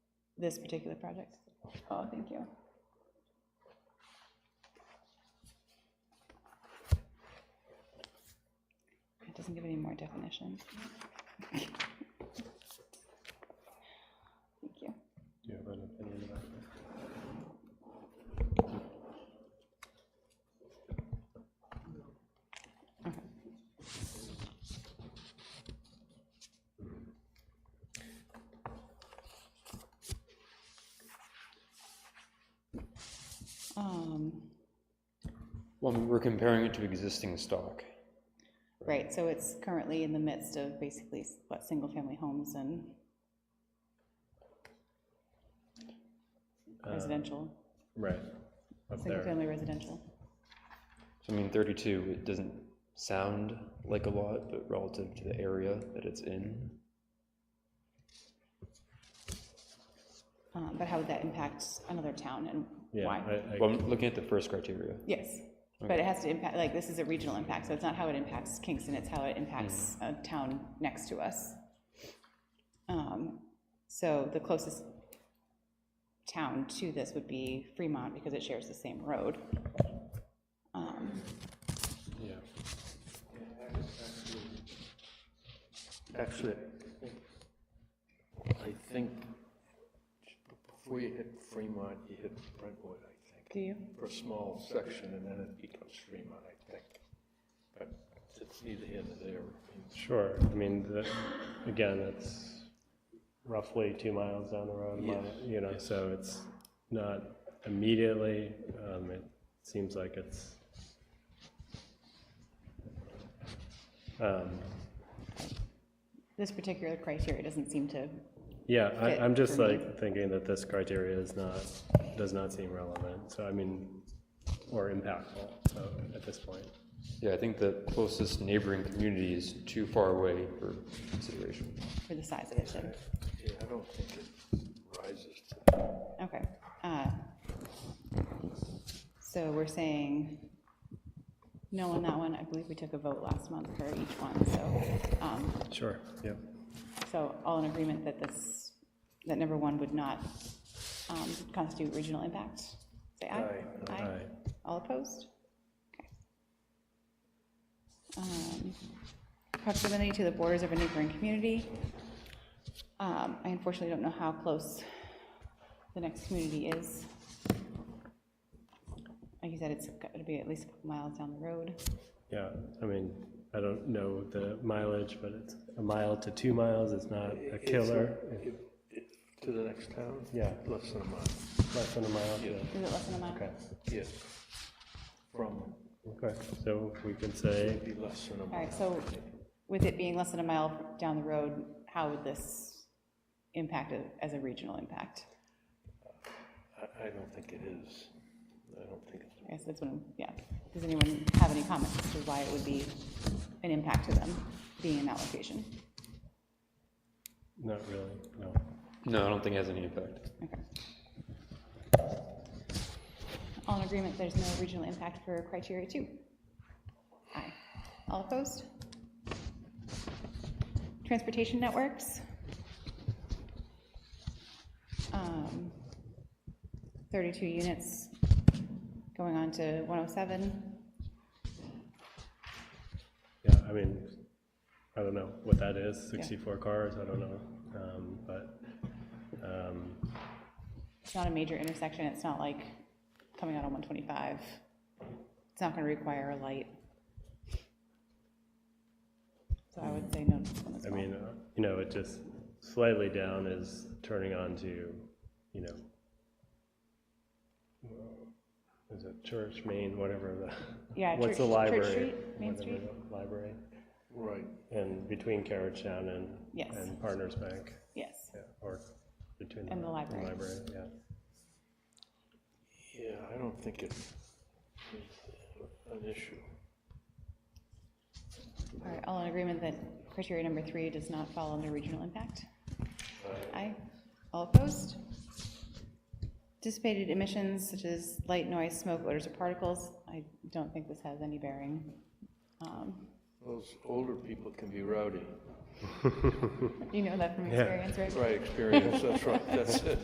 this particular project? Oh, thank you. It doesn't give any more definitions. Thank you. Do you have an opinion about that? Um, Well, we're comparing it to existing stock. Right, so it's currently in the midst of basically, what, single-family homes and residential, Uh, Right, up there. single-family residential. So I mean, 32, it doesn't sound like a lot, but relative to the area that it's in, Um, But how would that impact another town and Yeah, why? I- I- well, I'm looking at the first criteria. Yes, but it has to impact, like, this is a regional impact, so it's not how it impacts Kingston, it's how it impacts a town next to us. Um, So the closest town to this would be Fremont, because it shares the same road. Um, yeah. Actually, I think before you hit Fremont, you hit Brentwood, I think, Do you? for a small section, and then it becomes Fremont, I think. But it's neither here nor there. Sure, I mean, the- again, that's roughly two miles down the road, a mile, you know, so it's not immediately, um, it seems like it's, um, This particular criteria doesn't seem to, yeah, I, Fit I'm just for me. like thinking that this criteria is not, does not seem relevant, so I mean, or impactful, so, at this point. Yeah, I think the closest neighboring community is too far away for consideration. for the size of it, should. Yeah, I don't think it rises to Okay. uh, So we're saying no on that one. I believe we took a vote last month for each one, so, um, Sure, yeah. so all in agreement that this, that number one would not um, constitute regional impact? Say aye. Aye. Aye. All opposed? Okay. Um, Proximity to the borders of a neighboring community. Um, I unfortunately don't know how close the next community is. Like you said, it's got to be at least a couple miles down the road. Yeah, I mean, I don't know the mileage, but it's a mile to two miles, it's not a killer. If- if- To the next town? Yeah. Less than a mile, It's Less than a mile, yeah. Is it less than a mile? Okay, yeah. From, okay, so we could say, it'd be less than a All mile. right, so with it being less than a mile down the road, how would this impact it as a regional impact? I, I don't think it is. I don't think it's I guess that's what, I'm yeah. Does anyone have any comments as to why it would be an impact to them being in that location? not really, no. No, I don't think it has any impact. Okay. All in agreement, there's no regional impact for criteria two? Aye. All opposed? Transportation networks? Um, 32 units going on to 107. Yeah, I mean, I don't know what that is, sixty-four cars, I don't know, um, but, um, It's not a major intersection, it's not like coming out on 125. It's not going to require a light. So I would say no to this one as I well. mean, uh, you know, it just slightly down is turning on to, you know, uh, is it Church, Main, whatever the, Yeah, Church- what's the Church library? Street, Main whatever Street? the Library, Right, and between Carriage Town and, Yes. and Partners Bank, Yes, yeah, or between. And the library. Library, yeah, yeah, I don't think it's an issue. all right, all in agreement that criteria number three does not fall under regional impact? Aye, all opposed? Dissipated emissions such as light, noise, smoke, odors, or particles, I don't think this has any bearing. Um, Those older people can be rowdy. You know that from experience, right? Right, experience, that's right, that's it.